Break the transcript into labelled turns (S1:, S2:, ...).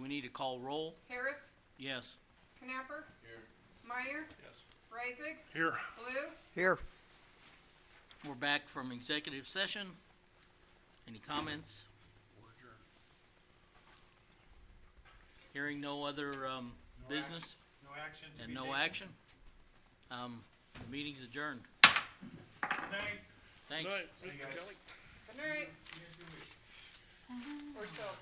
S1: we need to call roll,
S2: Harris,
S1: yes.
S2: Knapper. Meyer,
S3: Yes.
S2: Raisig,
S3: Here.
S2: Blue,
S4: Here.
S1: We're back from executive session. Any comments?
S3: We're adjourned.
S1: Hearing no other, um, business
S3: No action to be
S1: and
S3: taken.
S1: no action? Um, the meeting's adjourned.
S3: Thank-
S1: Thanks.
S3: Hey, guys.
S2: good night. Or so.